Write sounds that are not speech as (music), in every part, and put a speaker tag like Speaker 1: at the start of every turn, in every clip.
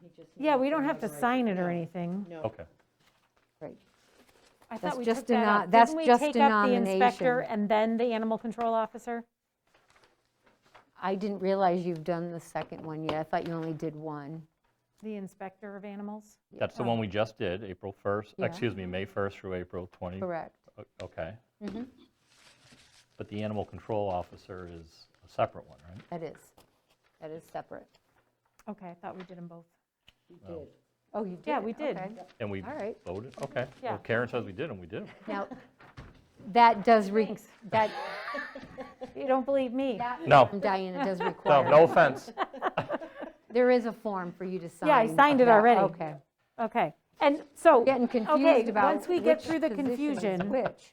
Speaker 1: he just.
Speaker 2: Yeah,
Speaker 1: needs
Speaker 2: we don't have to
Speaker 1: notarize
Speaker 2: sign it or
Speaker 1: No,
Speaker 2: anything.
Speaker 1: No,
Speaker 3: Okay.
Speaker 4: Right.
Speaker 2: I
Speaker 4: That's
Speaker 2: thought we
Speaker 4: just
Speaker 2: took that
Speaker 4: deno-
Speaker 2: out.
Speaker 4: that's
Speaker 2: Didn't we
Speaker 4: just
Speaker 2: take out the inspector
Speaker 4: denomination.
Speaker 2: and then the animal control officer?
Speaker 4: I didn't realize you've done the second one yet. I thought you only did one.
Speaker 2: The inspector of animals?
Speaker 3: That's the one we just did, April 1st,
Speaker 4: Yeah.
Speaker 3: excuse me, May 1st through April 20.
Speaker 4: Correct. Mm-hmm.
Speaker 3: O- Okay. But the animal control officer is a separate one, right?
Speaker 4: That is. That is separate.
Speaker 2: Okay, I thought we did them both.
Speaker 1: he did.
Speaker 4: Oh, you did?
Speaker 2: Yeah,
Speaker 4: it,
Speaker 2: we did.
Speaker 4: okay.
Speaker 3: And we
Speaker 4: All right.
Speaker 3: voted, okay.
Speaker 2: Yeah.
Speaker 3: Well, Karen says we did them, we did them.
Speaker 4: Now, that does, re-
Speaker 2: Thanks.
Speaker 4: that,
Speaker 2: (laughs) You don't believe me?
Speaker 4: that
Speaker 3: No.
Speaker 4: form, Diana, does
Speaker 3: No,
Speaker 4: require.
Speaker 3: no
Speaker 4: (laughs)
Speaker 3: offense.
Speaker 4: There is a form for you to sign.
Speaker 2: I signed it
Speaker 4: about-
Speaker 2: already.
Speaker 4: Okay.
Speaker 2: Okay. And so,
Speaker 4: Getting
Speaker 2: okay,
Speaker 4: confused about
Speaker 2: once we get
Speaker 4: which
Speaker 2: through the
Speaker 4: position is
Speaker 2: confusion,
Speaker 4: Which.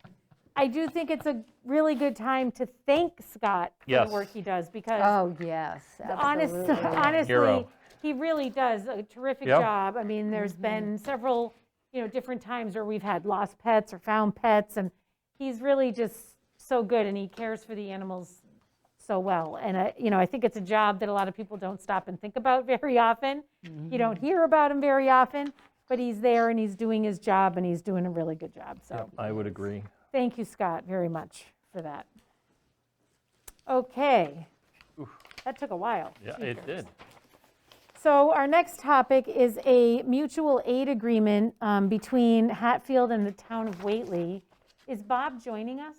Speaker 2: I do think it's a really good time to thank Scott for the
Speaker 3: Yes.
Speaker 2: work he does because
Speaker 4: Oh, yes,
Speaker 2: honest, (laughs)
Speaker 4: absolutely.
Speaker 2: honestly,
Speaker 3: Hero.
Speaker 2: he really does a terrific
Speaker 3: Yeah.
Speaker 2: job. I mean, there's been several, you know, different times where we've had lost pets or found pets and he's really just so good and he cares for the animals so well. And, I- you know, I think it's a job that a lot of people don't stop and think about (laughs) very often. You don't hear about him very often, but he's there and he's doing his job and he's doing a really good job, so.
Speaker 3: I would agree.
Speaker 2: Thank you, Scott, very much for that. Okay. That took a while.
Speaker 3: Yeah, it
Speaker 2: Jeepers.
Speaker 3: did.
Speaker 2: So our next topic is a mutual aid agreement um, between Hatfield and the town of Whately. Is Bob joining us?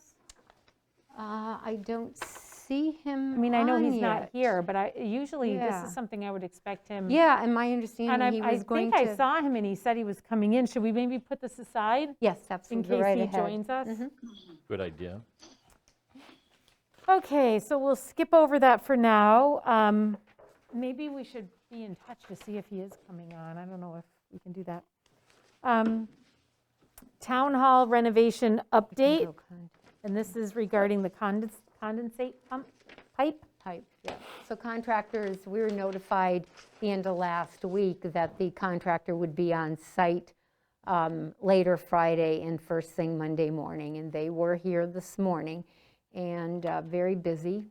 Speaker 4: Uh, I don't see him
Speaker 2: I mean, I know
Speaker 4: on
Speaker 2: he's not
Speaker 4: yet.
Speaker 2: here, but I, usually this
Speaker 4: Yeah.
Speaker 2: is something I would expect him.
Speaker 4: Yeah, and my
Speaker 2: And
Speaker 4: understanding, he
Speaker 2: I- I
Speaker 4: was going
Speaker 2: think
Speaker 4: to.
Speaker 2: I saw him and he said he was coming in. Should we maybe put this aside
Speaker 4: Yes,
Speaker 2: in
Speaker 4: absolutely,
Speaker 2: case
Speaker 4: right
Speaker 2: he
Speaker 4: ahead. Mm-hmm.
Speaker 2: joins us?
Speaker 3: Good idea.
Speaker 2: Okay, so we'll skip over that for now. Um, Maybe we should be in touch to see if he is coming on. I don't know if we can do that. Um, Town Hall renovation update,
Speaker 4: No con-
Speaker 2: and this is regarding the condens- condensate pump pipe.
Speaker 4: Type, yeah. So contractors, we were notified the end of last week that the contractor would be on site um, later Friday and first thing Monday morning, and they were here this morning, and uh, very busy,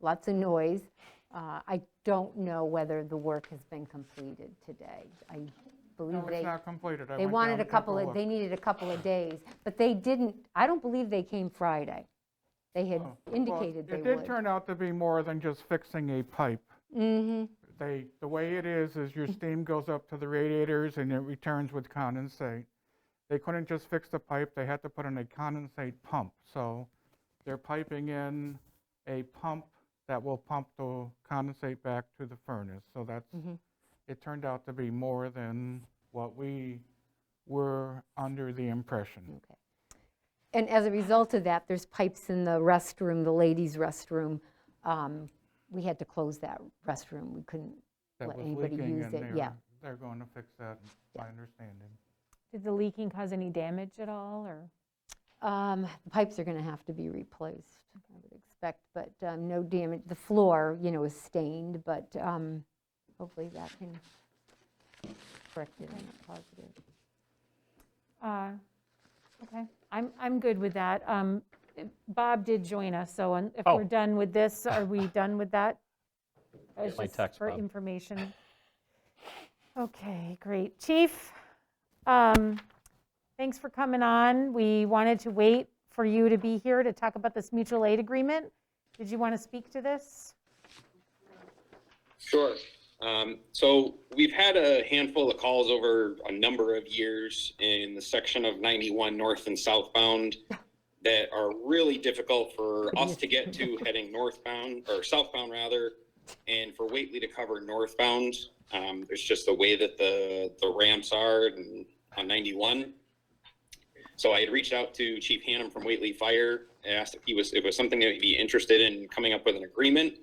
Speaker 4: lots of noise. Uh, I don't know whether the work has been completed today. I believe
Speaker 5: No,
Speaker 4: they.
Speaker 5: it's not completed. I
Speaker 4: They
Speaker 5: went
Speaker 4: wanted
Speaker 5: down
Speaker 4: a
Speaker 5: to
Speaker 4: couple
Speaker 5: take
Speaker 4: of,
Speaker 5: a
Speaker 4: they
Speaker 5: look.
Speaker 4: needed a couple of days, but they didn't, I don't believe they came Friday. They had
Speaker 5: Oh. Well,
Speaker 4: indicated they
Speaker 5: It did
Speaker 4: would.
Speaker 5: turn out to be more than just fixing a pipe.
Speaker 4: Mm-hmm,
Speaker 5: They, the way it is, is your steam goes up to the radiators and it returns with condensate. They couldn't just fix the pipe, they had to put in a condensate pump. So they're piping in a pump that will pump the condensate back to the furnace. So that's,
Speaker 4: Mm-hmm.
Speaker 5: it turned out to be more than what we were under the impression.
Speaker 4: okay. And as a result of that, there's pipes in the restroom, the ladies' restroom. Um, We had to close that restroom, we couldn't
Speaker 5: That
Speaker 4: let
Speaker 5: was
Speaker 4: anybody
Speaker 5: leaking,
Speaker 4: use
Speaker 5: and
Speaker 4: it,
Speaker 5: they're-
Speaker 4: yeah.
Speaker 5: They're going to fix that, my understanding.
Speaker 2: Did the leaking cause any damage at all, or?
Speaker 4: Um, the Pipes are going to have to be replaced, I would expect, but um, no damage, the floor, you know, is stained, but um, hopefully that can correct it, I'm not positive.
Speaker 2: Uh, Okay, I'm, I'm good with that. Um, Bob did join us, so un- if
Speaker 3: Oh.
Speaker 2: we're done with this, are we
Speaker 3: (laughs)
Speaker 2: done with that? It's
Speaker 3: my
Speaker 2: just
Speaker 3: text,
Speaker 2: For
Speaker 3: Bob.
Speaker 2: information. Okay, great. Chief, um, thanks for coming on. We wanted to wait for you to be here to talk about this mutual aid agreement. Did you want to speak to this?
Speaker 6: Sure. Um, so we've had a handful of calls over a number of years in the section of 91 north and southbound that are really difficult for us to get to heading northbound or southbound rather, and for Waitley to cover northbound. Um, there's just the way that the the ramps are and on 91. So I had reached out to Chief Hannum from Waitley Fire and asked if he was if it was something that he'd be interested in coming up with an agreement.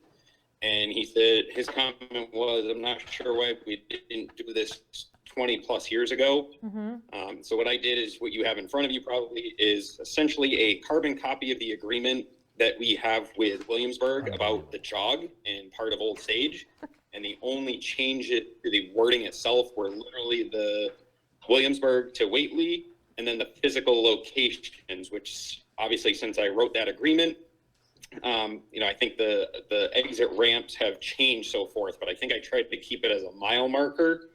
Speaker 6: And he said, his comment was, I'm not sure why we didn't do this 20 plus years ago.
Speaker 2: Mhm.
Speaker 6: Um, so what I did is what you have in front of you probably is essentially a carbon copy of the agreement that we have with Williamsburg about the jog and part of Old Sage. And the only change it to the wording itself were literally the Williamsburg to Waitley and then the physical locations, which obviously since I wrote that agreement, um, you know, I think the the exit ramps have changed so forth, but I think I tried to keep it as a mile marker.